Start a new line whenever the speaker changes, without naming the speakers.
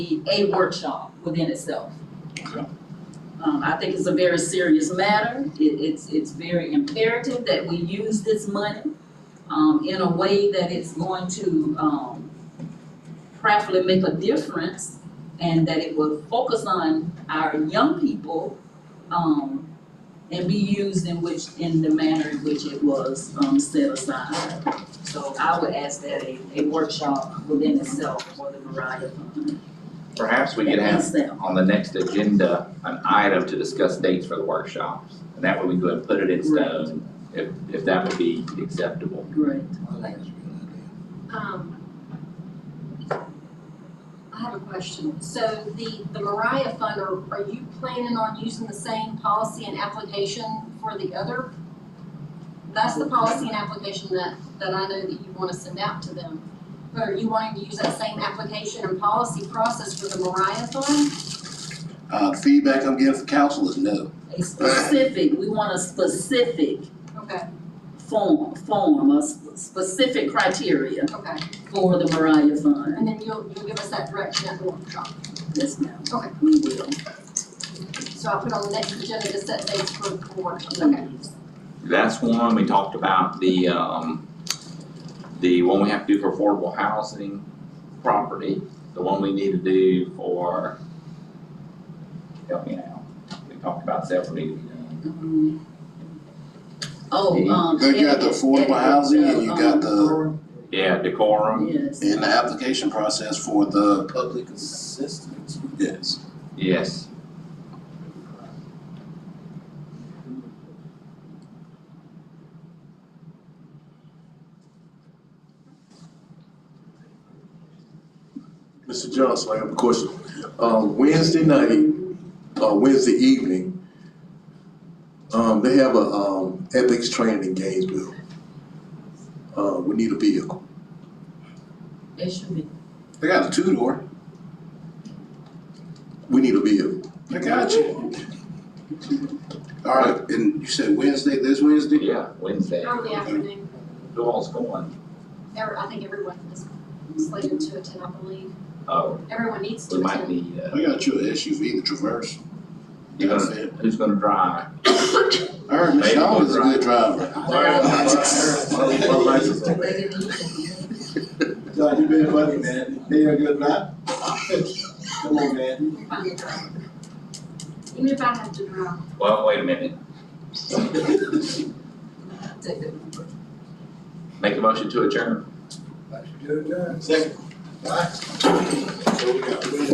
be a workshop within itself.
Okay.
Um, I think it's a very serious matter. It, it's, it's very imperative that we use this money, um, in a way that it's going to, um, practically make a difference and that it will focus on our young people, um, and be used in which, in the manner in which it was, um, set aside. So I would ask that a, a workshop within itself for the Mariah Fund.
Perhaps we could have
Yes, ma'am.
on the next agenda, an item to discuss dates for the workshops. And that way we go and put it in stone, if, if that would be acceptable.
Great.
Um, I have a question. So the, the Mariah Fund, are, are you planning on using the same policy and application for the other? That's the policy and application that, that I know that you want to send out to them. But are you wanting to use that same application and policy process for the Mariah Fund?
Uh, feedback I'm getting from council is no.
A specific, we want a specific
Okay,
form, form, a sp- specific criteria
okay.
for the Mariah Fund.
And then you'll, you'll give us that direction at the workshop.
Yes, ma'am.
Okay.
We will.
So I'll put on the next agenda to set dates for the workshop. Okay.
That's one, we talked about the, um, the one we have to do for affordable housing property, the one we need to do for, help me out. We talked about several need to be done.
Um, Oh, um.
Because you got the
edit-
affordable housing and you
edit,
got
um,
Yeah, decorum,
Yes.
In the application process for the public assistance. Yes.
yes.
Mr. Johnson, I have a question. Um, Wednesday night, uh, Wednesday evening, um, they have a, um, ethics training in Gainesville. Uh, we need a vehicle.
It should be.
They got a two-door.
We need a vehicle.
I got you. All right, and you said Wednesday, this Wednesday?
Yeah, Wednesday.
Early afternoon.
Who all's going?
Every, I think everyone is slated to attend, I believe.
Oh,
Everyone needs
we
to
might
attend.
need, uh,
I got you an SUV, the Traverse.
you're gonna- who's gonna drive?
I heard Miss Shaw is a good driver.
They didn't use it.
John, you been funny, man. Hey, you're a good rap. Come on, man.
We find a driver. Even if I have to drive.
Well, wait a minute.
Take it.
Make a motion to adjourn.
Second.